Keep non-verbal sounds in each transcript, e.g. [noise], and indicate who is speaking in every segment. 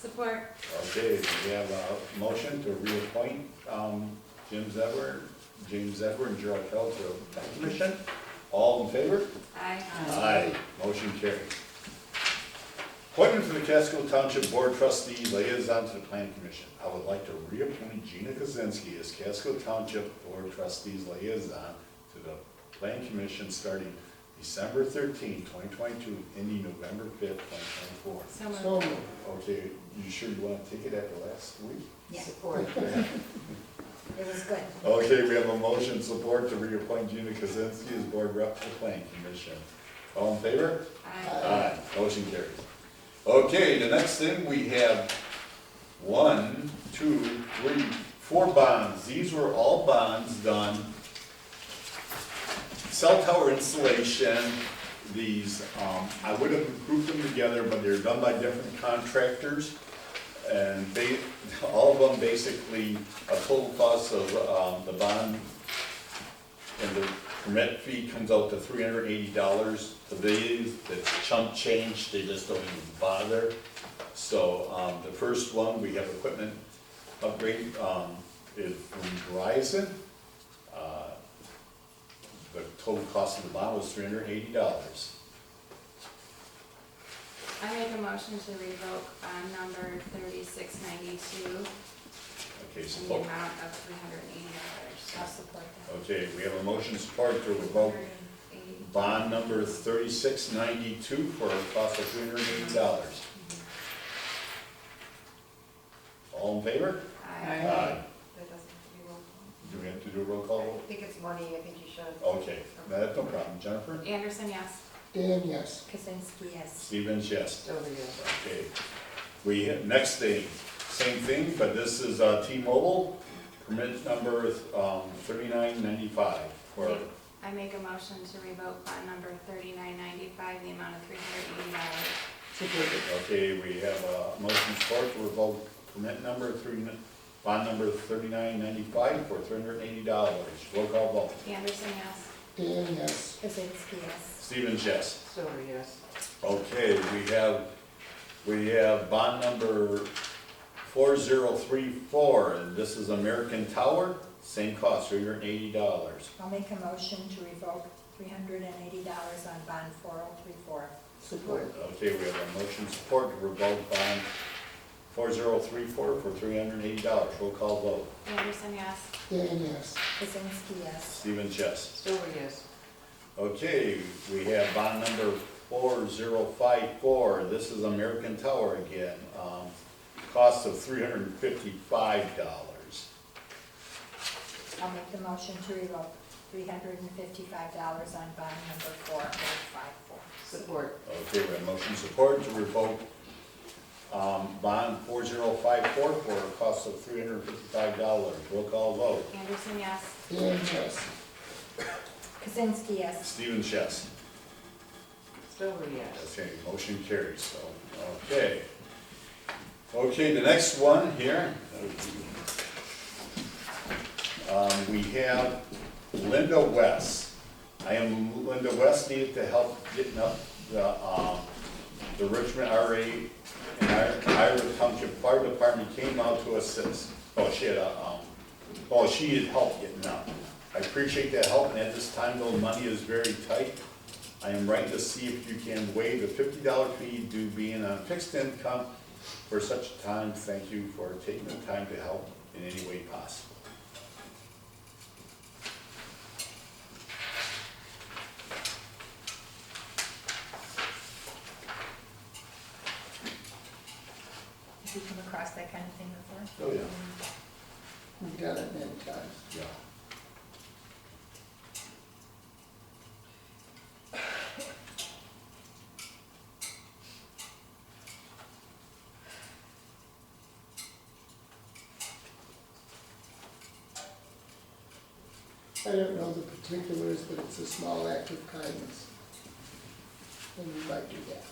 Speaker 1: Support.
Speaker 2: Okay, we have a motion to reappoint um, Jim Zever, James Zever, and Gerald Feld to the Plan Commission. All in favor?
Speaker 1: Aye.
Speaker 2: Aye. Motion carried. Appointment for the Casco Township Board Trustee Liaison to the Plan Commission. I would like to reappoint Gina Kozinski as Casco Township Board Trustee's Liaison to the Plan Commission starting December 13, 2022, ending November 5, 2024.
Speaker 1: So moved.
Speaker 3: So moved.
Speaker 2: Okay, you sure you want to take it at the last week? [laughs]
Speaker 4: Yeah, support. It was good.
Speaker 2: Okay, we have a motion support to reappoint Gina Kozinski as board rep to the planning commission. All in favor?
Speaker 1: Aye.
Speaker 2: Aye. Motion carries. Okay, the next thing, we have one, two, three, four bonds. These were all bonds done. Cell tower installation, these, um, I would have grouped them together, but they're done by different contractors. And they, [laughs] all of them basically, a total cost of, um, the bond and the permit fee comes out to three hundred and eighty dollars. For these, it's chump change, they just don't even bother. So, um, the first one, we have equipment upgrade, um, is from Verizon. Uh, The total cost of the bond was three hundred and eighty dollars.
Speaker 1: I make a motion to revoke bond number thirty-six ninety-two
Speaker 2: Okay,
Speaker 1: in the
Speaker 2: support.
Speaker 1: amount of three hundred and eighty dollars.
Speaker 4: I'll support that.
Speaker 2: Okay, we have a motion support to revoke
Speaker 1: Eighty.
Speaker 2: bond number thirty-six ninety-two for a cost of three hundred and eighty dollars. All in favor?
Speaker 1: Aye.
Speaker 2: Aye.
Speaker 4: That doesn't have
Speaker 2: Do we have to do a roll call?
Speaker 4: to be roll.
Speaker 2: vote?
Speaker 4: I think it's money, I think you should.
Speaker 2: Okay, no, that's no problem. Jennifer?
Speaker 1: Anderson, yes.
Speaker 3: Dan, yes.
Speaker 4: Kaczynski, yes.
Speaker 2: Stevens, yes.
Speaker 4: Stover, yes.
Speaker 2: Okay. We, next thing, same thing, but this is uh, T-Mobile, permit number um, 3995. for-
Speaker 1: I make a motion to revoke bond number thirty-nine ninety-five in the amount of three hundred and eighty dollars.
Speaker 3: Support.
Speaker 2: Okay, we have a motion support to revoke permit number three, bond number 3995 for $380. Roll call vote.
Speaker 1: Anderson, yes.
Speaker 3: Dan, yes.
Speaker 4: Kaczynski, yes.
Speaker 2: Stevens, yes.
Speaker 4: Stover, yes.
Speaker 2: Okay, we have, we have bond number four zero three four, and this is American Tower, same cost, three hundred and eighty dollars.
Speaker 5: I'll make a motion to revoke three hundred and eighty dollars on bond four oh three four.
Speaker 4: Support.
Speaker 2: Okay, we have a motion support to revoke bond four zero three four for three hundred and eighty dollars, roll call vote.
Speaker 1: Anderson, yes.
Speaker 3: Dan, yes.
Speaker 5: Kaczynski, yes.
Speaker 2: Stephen Chess.
Speaker 4: Stover, yes.
Speaker 2: Okay, we have bond number four zero five four, this is American Tower again, um, cost of three hundred and fifty-five dollars.
Speaker 5: I'll make the motion to revoke three hundred and fifty-five dollars on bond number four oh five four.
Speaker 4: Support.
Speaker 2: Okay, we have motion support to revoke um, bond 4054 for a cost of $355. Roll call vote.
Speaker 1: Anderson, yes.
Speaker 3: Dan, yes.
Speaker 5: Kaczynski, yes.
Speaker 2: Stephen Chess.
Speaker 4: Stover, yes.
Speaker 2: Okay, motion carries, so, okay. Okay, the next one here. Um, We have Linda West. I am Linda West, needed to help getting up the, um, the Richmond RA and our- Iowa Township Fire Department came out to assist. Oh, she had a, um, oh, she had help getting up. I appreciate that help, and at this time, though, money is very tight. I am right to see if you can waive the fifty dollar fee due being on fixed income for such a time. Thank you for taking the time to help in any way possible.
Speaker 5: Have you come across that kind of thing before?
Speaker 2: Oh, yeah.
Speaker 3: We've done it many times.
Speaker 2: Yeah.
Speaker 3: I don't know the particulars, but it's a small act of kindness. And we might do that.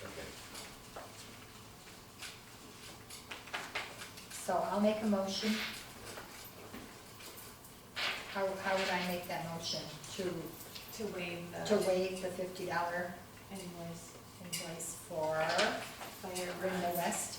Speaker 2: Okay.
Speaker 5: So I'll make a motion. How, how would I make that motion? To, uh,
Speaker 1: To waive
Speaker 5: to
Speaker 1: the
Speaker 5: waive the fifty dollar
Speaker 1: invoice.
Speaker 5: invoice for
Speaker 1: Fire
Speaker 5: Brenda West?